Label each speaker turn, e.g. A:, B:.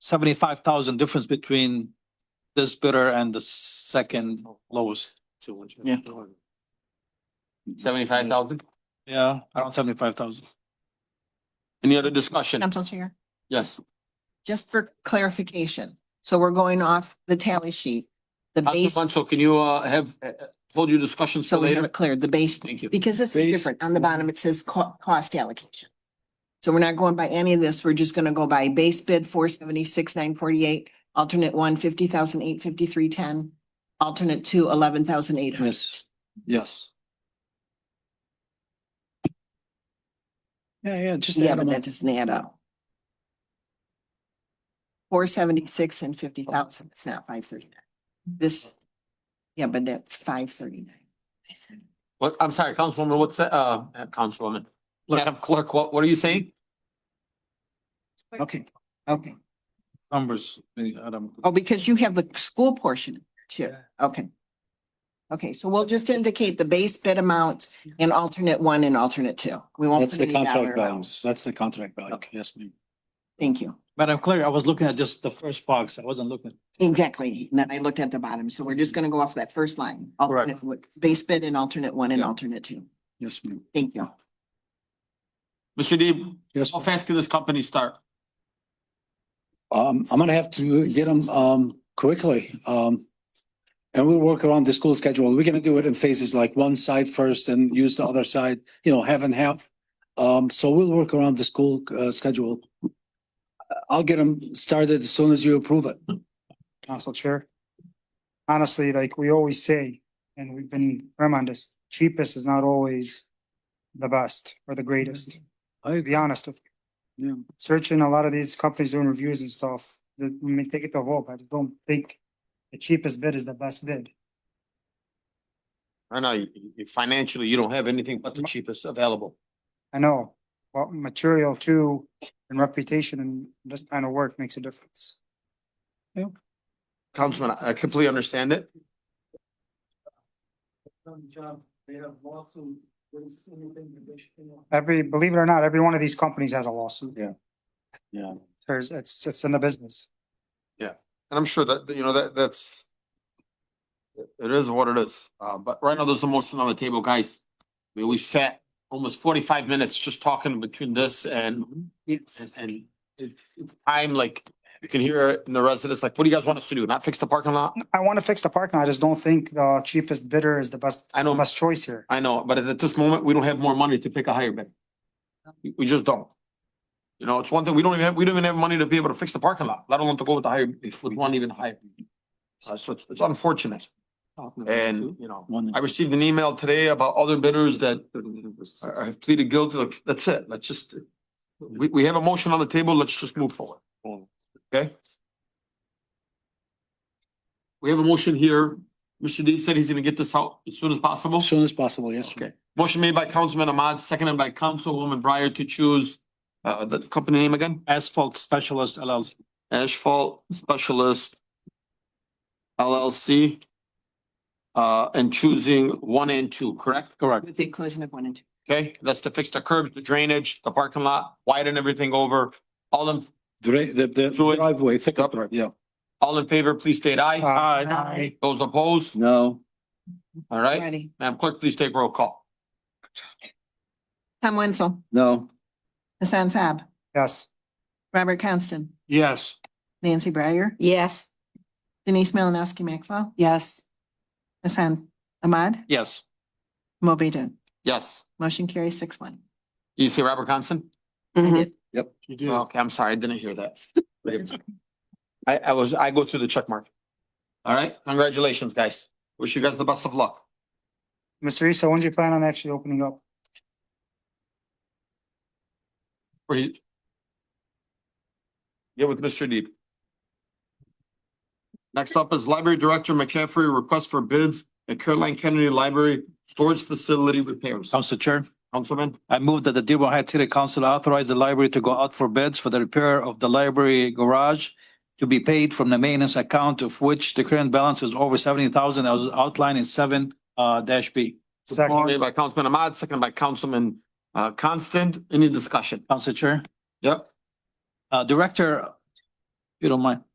A: seventy-five thousand difference between this bidder and the second lowest.
B: Yeah.
C: Seventy-five thousand?
A: Yeah, around seventy-five thousand.
C: Any other discussion?
D: Council Chair,
C: Yes.
D: just for clarification, so we're going off the tally sheet, the base,
C: Council Bledsoe, can you, uh, have, uh, uh, hold your discussions
D: so
C: till
D: we have
C: later?
D: it cleared, the base,
C: Thank you.
D: because this is
B: Base-
D: different. On the bottom, it says co- cost allocation. So we're not going by any of this. We're just gonna go by base bid four seventy-six, nine forty-eight, alternate one, fifty thousand, eight fifty-three, ten, alternate two, eleven thousand, eight hundred.
A: Yes, yes. Yeah, yeah, just.
D: Yeah,
A: add
D: but
A: 'em up.
D: that doesn't add up. Four seventy-six and fifty thousand, it's not five thirty-nine. This, yeah, but that's five thirty-nine.
C: What, I'm sorry, Councilwoman, what's that, uh, uh, Councilwoman?
A: Look.
C: Madam Clerk, what, what are you saying?
D: Okay, okay.
A: Numbers, I don't.
D: Oh, because you have the school portion too. Okay. Okay, so we'll just indicate the base bid amount in alternate one and alternate two. We won't.
E: That's
D: put
E: the
D: any dollar
E: contract
D: amount.
E: balance. That's the contract value.
D: Okay.
E: Yes, ma'am.
D: Thank you.
A: Madam Clerk, I was looking at just the first box. I wasn't looking.
D: Exactly. And then I looked at the bottom. So we're just gonna go off that first line.
A: Correct.
D: Alternate- Base bid and alternate one and
A: Yeah.
D: alternate two.
E: Yes, ma'am.
D: Thank you.
C: Mr. Deeb,
E: Yes.
C: how fast can this company start?
E: Um, I'm gonna have to get them, um, quickly. Um, and we'll work around the school schedule. We're gonna do it in phases, like one side first and use the other side, you know, half and half. Um, so we'll work around the school, uh, schedule. I'll get them started as soon as you approve it.
F: Council Chair. Honestly, like we always say, and we've been reminded, cheapest is not always the best or the greatest,
E: I
F: to be honest with you.
E: Yeah.
F: Searching a lot of these companies doing reviews and stuff, that we may take it to hope, I just don't think the cheapest bid is the best bid.
C: I know, you- you- financially, you don't have anything but the cheapest available.
F: I know, well, material too, and reputation and this kind of work makes a difference.
C: Councilman, I completely understand it.
F: Every, believe it or not, every one of these companies has a lawsuit.
E: Yeah. Yeah.
F: There's, it's, it's in the business.
C: And I'm sure that, that, you know, that, that's. it- It is what it is, uh, but right now there's a motion on the table, guys. We, we sat almost forty-five minutes just talking between this and. And, and it's, it's time, like, you can hear it in the residents, like, what do you guys want us to do? Not fix the parking lot?
F: I want to fix the parking. I just don't think the cheapest bidder is the best,
C: I know.
F: best choice here.
C: I know, but at this moment, we don't have more money to pick a higher bid. We- We just don't. You know, it's one thing, we don't even have, we don't even have money to be able to fix the parking lot, let alone to go with the higher, if with one even higher. Uh, so it's, it's unfortunate. And, you know,
E: One.
C: I received an email today about other bidders that are- are- have pleaded guilty, like, that's it, let's just, we, we have a motion on the table, let's just move forward. Okay? We have a motion here, Mr. Deep said he's gonna get this out as soon as possible.
E: As soon as possible, yes. ma'am.
C: Okay, motion made by Councilman Ahmad, seconded by Councilwoman Breyer to choose, uh, the company name again,
A: Asphalt Specialist LLC.
C: Asphalt Specialist LLC. Uh, and choosing one and two, correct?
A: Correct.
D: With the inclusion of one and two.
C: Okay, that's to fix the curbs, the drainage, the parking lot, widen everything over. All in,
E: Dri- the, the
C: So it-
E: driveway, thick up drive, yeah.
C: all in favor, please state aye.
F: Uh,
D: Aye.
C: Those opposed,
E: No.
C: all right?
D: Ready.
C: Madam Clerk, please take roll call.
D: Tom Wenzel,
E: No.
D: Hassan Saab,
F: Yes,
D: Robert Constant,
C: Yes.
D: Nancy Breyer,
G: Yes.
D: Denise Malinowski Maxwell,
G: Yes.
D: Hassan Ahmad,
A: Yes,
D: Moby Dun.
C: Yes.
D: Motion carries six one.
C: You see Robert Conson?
D: I
G: Mhm.
D: did.
C: Okay, I'm sorry, I didn't hear that. I, I was, I go through the check mark. All right, congratulations, guys. Wish you guys the best of luck.
F: Mr. Issa, when do you plan on actually opening up?
C: For you- Yeah, with Mr. Deep. Next up is Library Director McCaffrey, request for bids at Caroline Kennedy Library Storage Facility Repairs.
A: Council Chair.
C: Councilman,
A: I move that the Dearborn Heights City Council authorize the library to go out for bids for the repair of the library garage to be paid from the maintenance account of which the current balance is over seventy thousand as outlined in seven uh dash B.
F: Second,
C: made by Councilman Ahmad, seconded by Councilman uh Constant. Any discussion?
A: Council Chair.
C: Yep.
A: Uh, Director, you don't mind.